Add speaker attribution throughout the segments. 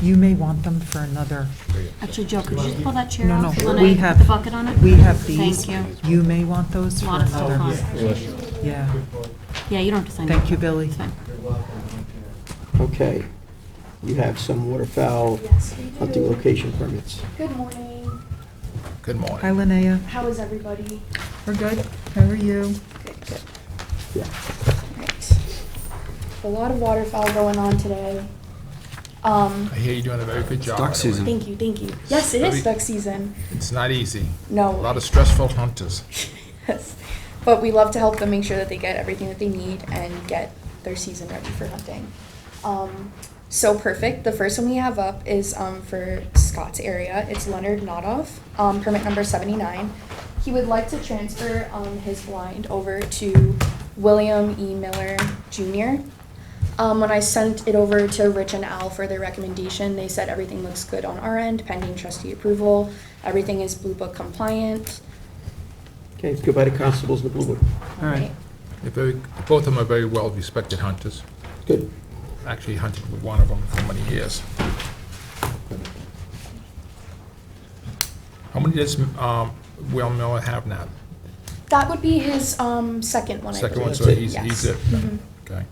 Speaker 1: You may want them for another,
Speaker 2: Actually, Joe, could you just pull that chair
Speaker 1: no,
Speaker 2: off?
Speaker 1: no,
Speaker 2: when
Speaker 1: we
Speaker 2: I
Speaker 1: have.
Speaker 2: put the bucket on it?
Speaker 1: We have these.
Speaker 2: Thank you.
Speaker 1: You may want those
Speaker 2: A
Speaker 1: for
Speaker 2: lot of stuff
Speaker 1: another.
Speaker 2: on.
Speaker 1: Yeah,
Speaker 2: Yeah, you don't have to sign that.
Speaker 1: thank you, Billy.
Speaker 2: It's fine.
Speaker 3: Okay. You have some waterfowl
Speaker 4: Yes, we
Speaker 3: hunting
Speaker 4: do.
Speaker 3: location permits.
Speaker 4: Good morning.
Speaker 5: Good
Speaker 1: Hi,
Speaker 5: morning.
Speaker 1: Linnea.
Speaker 4: How is everybody?
Speaker 1: We're good. How are you?
Speaker 4: Good, good.
Speaker 3: Yeah.
Speaker 4: Right. A lot of waterfowl going on today. Um,
Speaker 5: I hear you're doing a very good job.
Speaker 6: duck
Speaker 5: by the way.
Speaker 6: season.
Speaker 4: thank you, thank you. Yes, it is
Speaker 5: Really?
Speaker 4: duck season.
Speaker 5: It's not easy. A
Speaker 4: No.
Speaker 5: lot of stressful hunters.
Speaker 4: Yes. But we love to help them make sure that they get everything that they need and get their season ready for hunting. Um, so perfect. The first one we have up is um, for Scott's area. It's Leonard Nodoff, um, permit number 79. He would like to transfer um, his blind over to William E. Miller Jr. Um, when I sent it over to Rich and Al for their recommendation, they said everything looks good on our end, pending trustee approval. Everything is Blue Book compliant.
Speaker 3: Okay, let's go by the constables in the Blue Book.
Speaker 1: All right.
Speaker 5: They're very, both of them are very well-respected hunters.
Speaker 3: Good.
Speaker 5: Actually hunted with one of them for many years. How many does um, Will Miller have now?
Speaker 4: That would be his um, second one, I
Speaker 5: Second one,
Speaker 4: believe.
Speaker 5: so he's,
Speaker 4: Yes. Mm-hmm.
Speaker 5: he's it. Okay.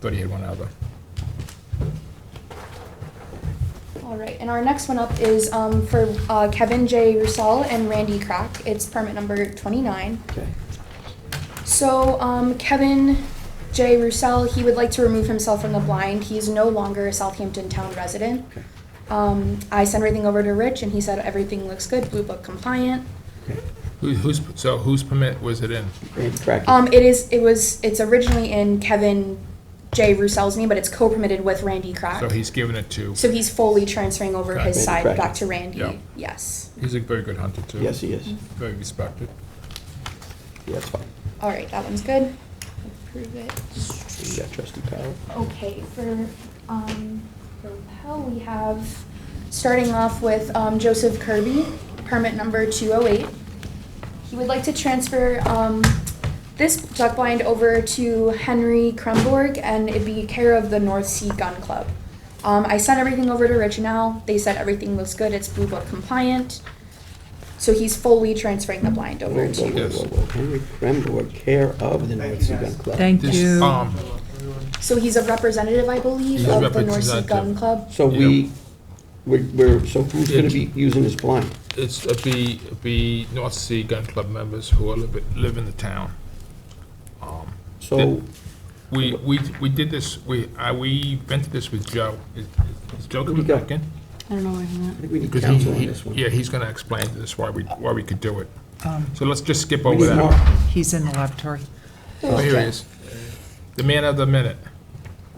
Speaker 5: Thought he had one other.
Speaker 4: All right, and our next one up is um, for uh, Kevin J. Russell and Randy Crack. It's permit number 29.
Speaker 3: Okay.
Speaker 4: So um, Kevin J. Russell, he would like to remove himself from the blind. He is no longer a Southampton town resident.
Speaker 3: Okay.
Speaker 4: Um, I sent everything over to Rich, and he said everything looks good, Blue Book compliant.
Speaker 3: Okay.
Speaker 5: Who- Who's, so whose permit was it in?
Speaker 3: Randy Crackett.
Speaker 4: Um, it is. It was. It's originally in Kevin J. Russell's name, but it's co-permitted with Randy Crack.
Speaker 5: So he's giving it to,
Speaker 4: So he's fully transferring over
Speaker 5: Right.
Speaker 4: his side
Speaker 3: Right.
Speaker 4: back to Randy.
Speaker 5: Yeah.
Speaker 4: Yes.
Speaker 5: he's a very good hunter too.
Speaker 3: Yes, he is.
Speaker 5: Very respected.
Speaker 3: Yeah, that's fine.
Speaker 4: All right, that one's good. Approve it.
Speaker 3: You got trustee Powell.
Speaker 4: Okay, for um, for Pell, we have starting off with um, Joseph Kirby, permit number 208. He would like to transfer um, this duck blind over to Henry Krumborg, and it'd be care of the North Sea Gun Club. Um, I sent everything over to Rich now. They said everything looks good. It's Blue Book compliant. So he's fully transferring the blind
Speaker 3: Whoa,
Speaker 4: over
Speaker 3: whoa,
Speaker 4: to.
Speaker 3: whoa,
Speaker 5: Yes.
Speaker 3: whoa, whoa. Henry Kremdor, care of the North Sea Gun Club.
Speaker 1: Thank
Speaker 5: This,
Speaker 1: you.
Speaker 5: um,
Speaker 4: So he's a representative, I believe,
Speaker 5: He's a
Speaker 4: of the North Sea Gun
Speaker 5: representative.
Speaker 4: Club.
Speaker 3: So we, we're- we're, so who's going to be using this blind?
Speaker 5: It's, it'd be, it'd be North Sea Gun Club members who are live, live in the town. Um,
Speaker 3: So,
Speaker 5: We, we, we did this, we, uh, we vented this with Joe. Is is Joe
Speaker 3: Who we
Speaker 5: coming
Speaker 3: got?
Speaker 5: back in?
Speaker 2: I don't know where I'm at.
Speaker 3: I think we need
Speaker 5: 'Cause he-
Speaker 3: counsel on
Speaker 5: he-
Speaker 3: this one.
Speaker 5: Yeah, he's gonna explain to us why we, why we could do it.
Speaker 1: Um,
Speaker 5: So let's just skip
Speaker 3: We
Speaker 5: over
Speaker 3: need
Speaker 5: that.
Speaker 3: Mark.
Speaker 1: He's in the laboratory.
Speaker 5: Oh, Here he is. The man of the minute.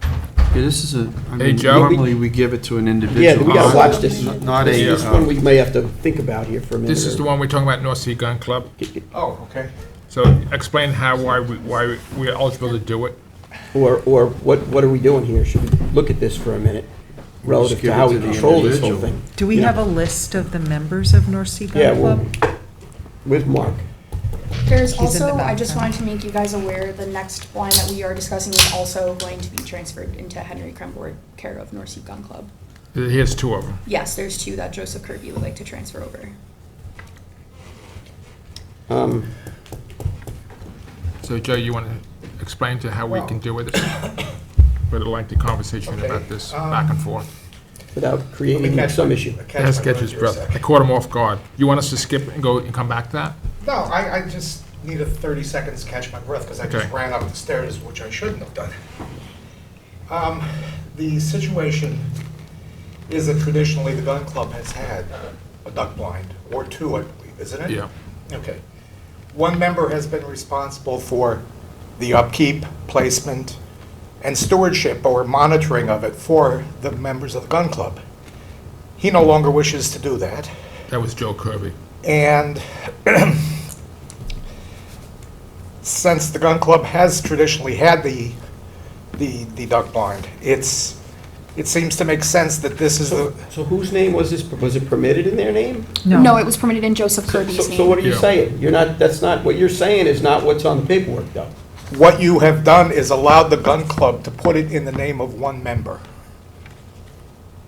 Speaker 6: Yeah, this is a,
Speaker 5: Hey,
Speaker 6: I mean,
Speaker 5: Joe?
Speaker 6: normally we give it to an individual.
Speaker 3: Yeah, we gotta
Speaker 5: Uh,
Speaker 3: watch this.
Speaker 6: Not- Not
Speaker 3: This
Speaker 6: a,
Speaker 3: is one
Speaker 6: uh,
Speaker 3: we may have to think about here for a minute.
Speaker 5: This is the
Speaker 3: or-
Speaker 5: one we're talking about, North Sea Gun Club.
Speaker 6: Oh, okay.
Speaker 5: So explain how, why, we why we're eligible to do it.
Speaker 3: Or, or what, what are we doing here? Should we look at this for a minute relative to
Speaker 6: give
Speaker 3: how we
Speaker 6: it to the
Speaker 3: control this whole
Speaker 6: individual.
Speaker 3: thing?
Speaker 1: Do we
Speaker 3: You know,
Speaker 1: have a list of the members of North Sea
Speaker 3: Yeah,
Speaker 1: Gun
Speaker 3: well,
Speaker 1: Club?
Speaker 3: with Mark.
Speaker 4: There's
Speaker 1: He's in the
Speaker 4: also, I just
Speaker 1: background.
Speaker 4: wanted to make you guys aware, the next wine that we are discussing is also going to be transferred into Henry Kremborg, care of North Sea Gun Club.
Speaker 5: Here's two of them.
Speaker 4: Yes, there's two that Joseph Kirby would like to transfer over.
Speaker 3: Um,
Speaker 5: So Joe, you wanna explain to how we can do it? But I like the conversation about this back and forth.
Speaker 3: Without creating
Speaker 7: catch-
Speaker 3: some issue.
Speaker 5: That's Sketch's brother. I caught him off guard. You want us to skip and go and come back to that?
Speaker 7: No, I, I just need a 30 seconds to catch my breath because I just
Speaker 5: Okay.
Speaker 7: ran up the stairs, which I shouldn't have done. Um, The situation is that traditionally the gun club has had a duck blind, or two, I believe, isn't it?
Speaker 5: Yeah.
Speaker 7: Okay. One member has been responsible for the upkeep, placement, and stewardship or monitoring of it for the members of the gun club. He no longer wishes to do that.
Speaker 5: That was Joe Kirby.
Speaker 7: And since the gun club has traditionally had the, the, the duck blind, it's, it seems to make sense that this is
Speaker 3: So
Speaker 7: the,
Speaker 3: so whose name was this, was it permitted in their name?
Speaker 4: No, it was permitted in Joseph
Speaker 3: So-
Speaker 4: Kirby's
Speaker 3: So so what
Speaker 4: name.
Speaker 3: are you
Speaker 5: Yeah.
Speaker 3: saying? You're not, that's not, what you're saying is not what's on the paperwork, though.
Speaker 7: what you have done is allowed the gun club to put it in the name of one member.